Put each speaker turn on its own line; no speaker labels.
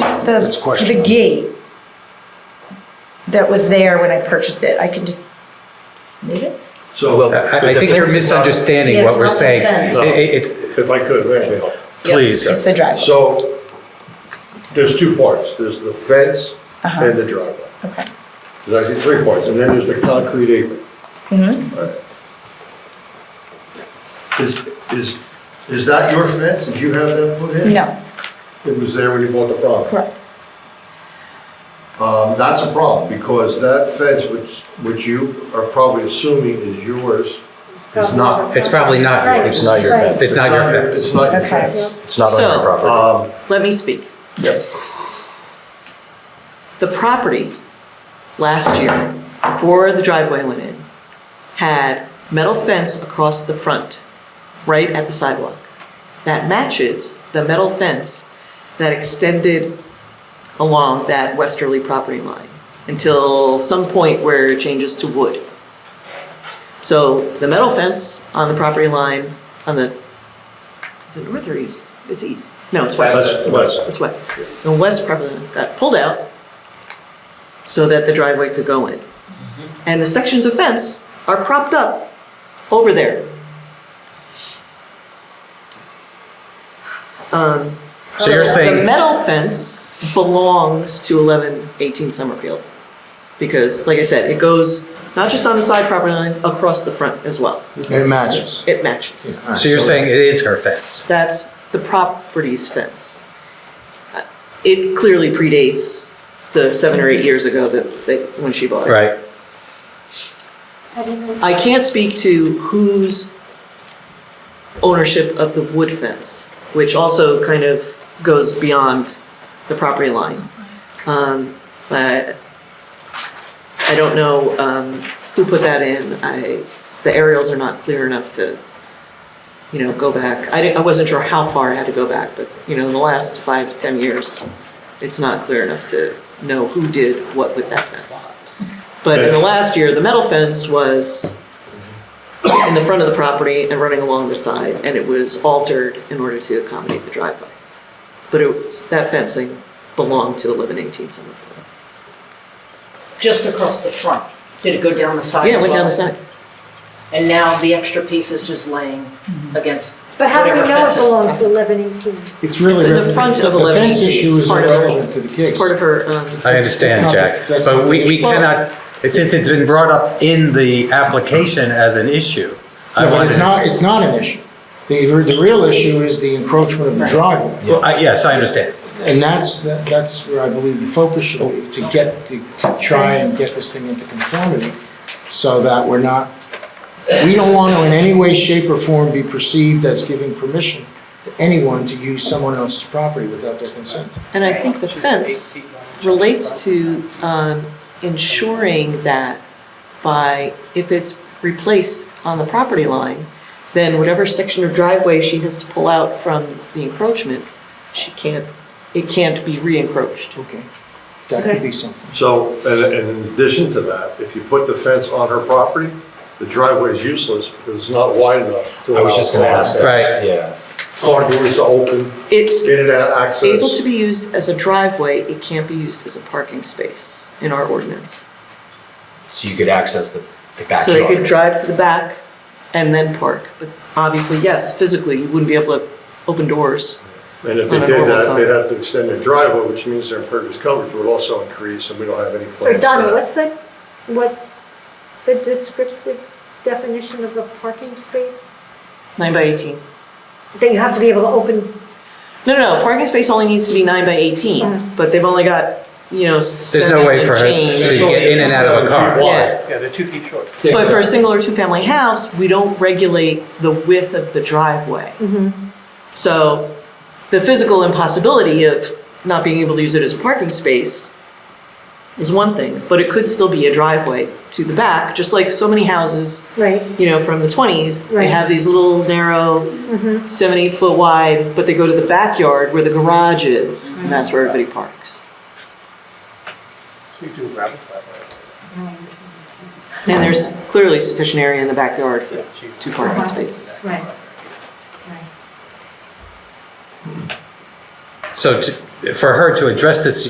the,
That's questionable.
the gate that was there when I purchased it, I can just move it?
So. uh,
I I think you're misunderstanding
Yeah,
what
it's
we're
not the
saying.
fence.
It- it- It's,
If I could, may I help?
please.
It's the driveway,
So there's two parts. There's the fence
Uh-huh.
and the driveway.
okay.
There's actually three parts, and then there's the concrete apron.
Mm-hmm.
Right. Is, is, is that your fence? Did you have that put in?
No,
It was there when you bought the property?
correct.
Um, that's a problem, because that fence, which, which you are probably assuming is yours, is
Oh.
not.
It's probably not
Right.
yours.
It's not your
Right.
fence.
It's not your
It's
fence.
not your
Okay.
fence.
It's not on
So-
your property.
Let me speak. The property last year, before the driveway went in, had metal fence across the front, right at the sidewalk. That matches the metal fence that extended along that westerly property line until some point where it changes to wood. So the metal fence on the property line, on the, is it north or east? It's east. No, it's
That's west.
it's west. The west property line got pulled out so that the driveway could go in.
Mm-hmm.
And the sections of fence are propped up over there. Um,
So you're
The
saying,
metal fence belongs to 1118 Summerfield. Because, like I said, it goes not just on the side property line, across the front as well.
It matches.
It matches.
so you're saying it is her fence?
That's the property's fence. Uh, It clearly predates the seven or eight years ago that, that, when she bought it.
Right.
I can't speak to whose ownership of the wood fence, which also kind of goes beyond the property line. Um, But I don't know um, who put that in. I, the aerials are not clear enough to, you know, go back. I didn't, I wasn't sure how far I had to go back, but, you know, in the last five to 10 years, it's not clear enough to know who did what with that fence. But in the last year, the metal fence was in the front of the property and running along the side, and it was altered in order to accommodate the driveway. But it was, that fencing belonged to eleven eighteen Summerfield.
Just across the front. Did it go down the side?
Yeah, it
as
went down
well?
the side.
And now the extra piece is just laying against
But how do we
whatever
know it
fence is.
belongs to eleven eighteen?
It's
It's
really,
in the front of
the
eleven
fence issue
eighteen, it's
is
part of her,
irrelevant to the
it's
case.
part of her, um,
I
It's
understand,
not-
Jack,
that's
but
not
we,
the
we
issue.
cannot, since it's been brought up in the application as an issue. I
No, but
wanted-
it's not, it's not an issue. The, the real issue is the encroachment of the driveway.
Well, I- yes, I understand.
And that's, that- that's where I believe the focus should be, to get, to to try and get this thing into conformity so that we're not, we don't want to in any way, shape, or form be perceived as giving permission to anyone to use someone else's property without their consent.
and I think the fence relates to, um, ensuring that by, if it's replaced on the property line, then whatever section of driveway she has to pull out from the encroachment, she can't, it can't be re-encroached.
Okay. That could be something.
So, and and in addition to that, if you put the fence on her property, the driveway is useless, because it's not wide enough to allow.
I was just gonna ask that.
Right.
Yeah.
Car doors to open,
It's
in and out access.
able to be used as a driveway, it can't be used as a parking space in our ordinance.
So you could access the the
So
backyard.
they could drive to the back and then park, but obviously, yes, physically, you wouldn't be able to open doors.
And if they
on a
did
normal
that,
car.
they'd have to extend their driveway, which means their impervious coverage would also increase, and we don't have any plans.
Or
for
Donna,
that.
what's the, what's the descriptive definition of a parking space?
Nine by 18.
That you have to be able to open,
No, no, no, parking space only needs to be nine by 18, but they've only got, you know,
There's
seven
no way for
and
her to
change.
get in and out of a car.
Yeah.
Why?
But for a single or two-family house, we don't regulate the width of the driveway. So the physical impossibility of not being able to use it as a parking space is one thing, but it could still be a driveway to the back, just like so many houses,
right,
you know, from the 20s. They
Right.
have these little narrow, seven, eight foot wide, but they go to the backyard where the garage is, and that's where everybody parks. And there's clearly sufficient area in the backyard for two parking spaces.
right.
So to, for her to address this